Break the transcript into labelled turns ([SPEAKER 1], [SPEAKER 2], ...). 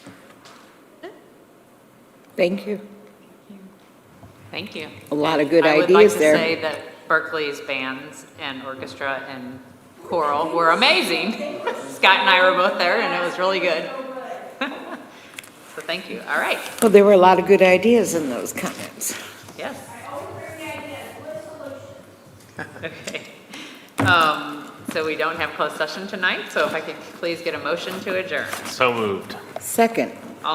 [SPEAKER 1] Thank you.
[SPEAKER 2] Thank you.
[SPEAKER 1] A lot of good
[SPEAKER 2] I would like
[SPEAKER 1] ideas
[SPEAKER 2] to
[SPEAKER 1] there.
[SPEAKER 2] say that Berkeley's bands and orchestra and choral were amazing. Scott and I were both there, and it was really good. So thank you. All right,
[SPEAKER 1] Well, there were a lot of good ideas in those comments.
[SPEAKER 2] yes. Okay. Um, So we don't have closed session tonight, so if I could please get a motion to adjourn.
[SPEAKER 3] So moved.
[SPEAKER 1] Second,